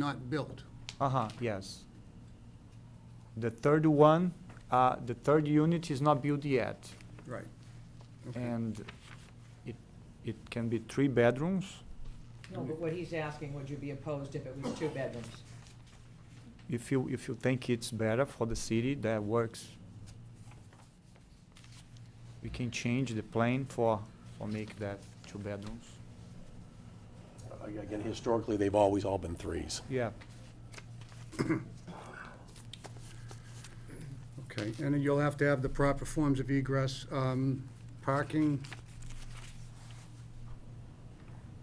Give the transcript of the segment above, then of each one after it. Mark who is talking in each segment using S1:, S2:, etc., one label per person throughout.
S1: not built.
S2: Uh-huh, yes. The third one, uh, the third unit is not built yet,
S1: Right. Okay.
S2: and it, it can be three bedrooms.
S3: No, but what he's asking, would you be opposed if it was two bedrooms?
S2: If you, if you think it's better for the city, that works. We can change the plan for, for make that two bedrooms.
S4: Again, historically, they've always all been threes.
S2: Yeah,
S1: Okay, and then you'll have to have the proper forms of egress, um, parking,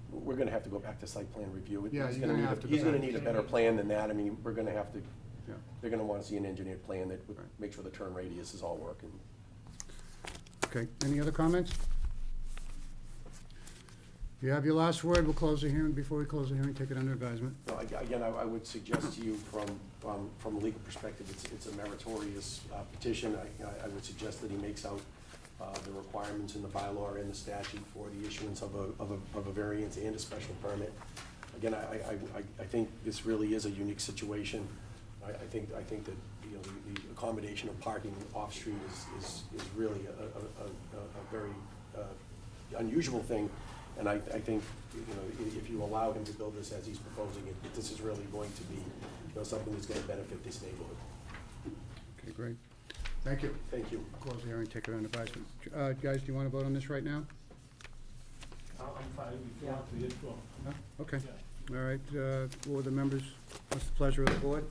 S4: We're gonna have to go back to site plan review. He's
S1: Yeah, you're gonna
S4: need a-
S1: have to go
S4: He's gonna
S1: back.
S4: need a better plan than that. I mean, we're gonna have to,
S1: Yeah.
S4: they're gonna wanna see an engineered plan that would
S1: Right.
S4: make sure the turn radius is all working.
S1: okay. Any other comments? You have your last word, we'll close the hearing, before we close the hearing, take it under advisement.
S4: No, I- Again, I I would suggest to you from, um, from a legal perspective, it's, it's a meritorious uh, petition. I- I, I would suggest that he makes out uh, the requirements in the bylaw and the statute for the issuance of a, of a, of a variance and a special permit. Again, I, I, I- I think this really is a unique situation. I, I think, I think that, you know, the- the accommodation of parking off-street is, is, is really a, a, a- a a very uh, unusual thing. And I, I think, you know, i- if you allow him to build this as he's proposing it, this is really going to be, you know, something that's gonna benefit this neighborhood.
S1: Okay, great. Thank you.
S4: Thank you.
S1: Close the hearing, take it under advisement. Uh, guys, do you want to vote on this right now?
S5: I'm fine, if you want to, yes, well,
S1: No? Okay,
S5: yeah.
S1: all right, uh, what are the members, what's the pleasure of the board?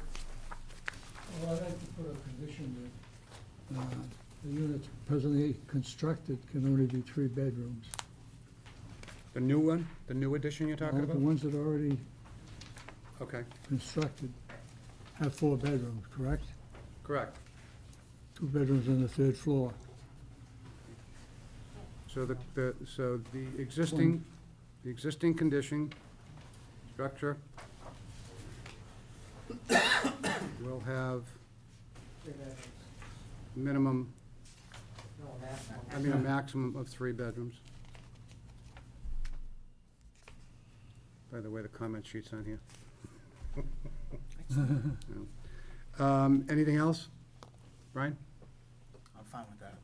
S6: Well, I'd like to put a condition that uh, the units presently constructed can only be three bedrooms.
S1: The new one, the new addition you're talking
S6: All The
S1: about?
S6: ones that are already
S1: Okay,
S6: constructed have four bedrooms, correct?
S1: correct.
S6: Two bedrooms on the third floor.
S1: So the, the, so the existing, the existing condition, structure, will have
S3: Three bedrooms.
S1: minimum,
S3: No, that's not.
S1: I mean, a maximum of three bedrooms. By the way, the comment sheet's on here. Um, anything else? Brian?
S7: I'm fine with that.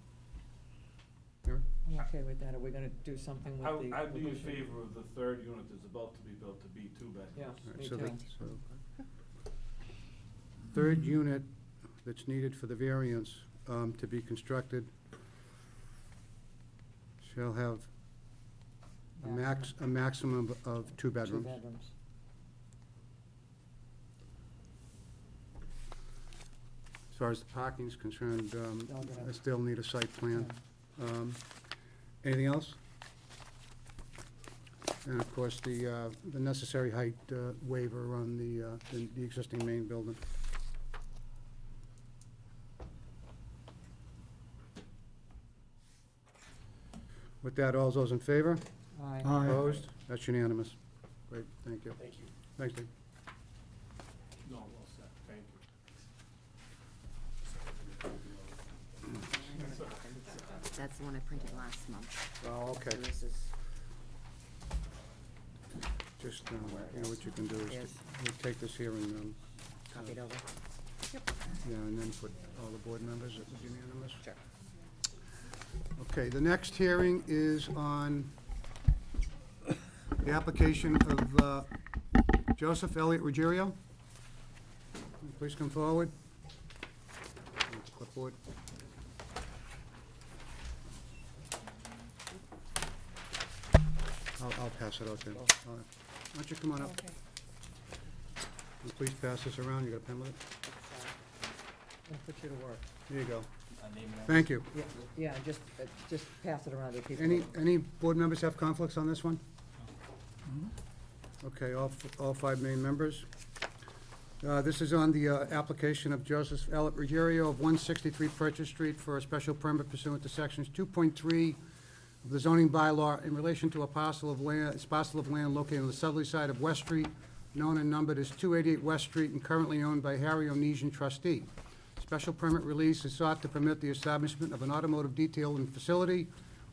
S1: Eric?
S3: I'm okay with that. Are we gonna do something
S5: I,
S3: with the?
S5: I'd be in favor of the third unit that's about to be built to be two bedrooms.
S3: Yeah,
S1: All right,
S3: me
S1: so the-
S3: too.
S1: so- Third unit that's needed for the variance um, to be constructed shall have a max, a maximum of two
S3: Two
S1: bedrooms.
S3: bedrooms.
S1: As far as the parking's concerned, um,
S3: Don't get it.
S1: I still need a site plan. Um, Anything else? And of course, the, uh, the necessary height uh, waiver on the, uh, the the existing main building. With that, all those in favor?
S3: Aye.
S1: Opposed? That's unanimous. Great, thank you.
S4: Thank you.
S1: Thanks, Dave.
S5: No, well said, thank you.
S8: That's the one I printed last month.
S1: Oh, okay.
S8: So This is,
S1: Just, uh, you know, what you can do is,
S8: Yes.
S1: we'll take this here and, um,
S8: copied over.
S1: Yeah, and then put all the board members, it was unanimous?
S8: Sure.
S1: Okay, the next hearing is on the application of uh, Joseph Elliott Ruggiero. Please come forward. Clipboard. I'll, I'll pass it out then. All right. Why don't you come on up? And please pass this around, you got a pen with it?
S3: And put you to work.
S1: There you go. Thank you.
S3: Yeah, Yeah, just, uh, just pass it around to people.
S1: Any, any board members have conflicts on this one? Okay, all, f- all five main members. Uh, This is on the uh, application of Joseph L. Ruggiero of 163 Purchase Street for a special permit pursuant to sections 2.3 of the zoning bylaw in relation to a parcel of land, it's parcel of land located on the southerly side of West Street, known and numbered as 288 West Street and currently owned by Harry Onesian trustee. Special permit release is sought to permit the establishment of an automotive detailing facility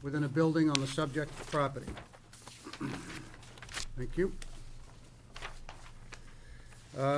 S1: within a building on the subject property. Thank you. Uh,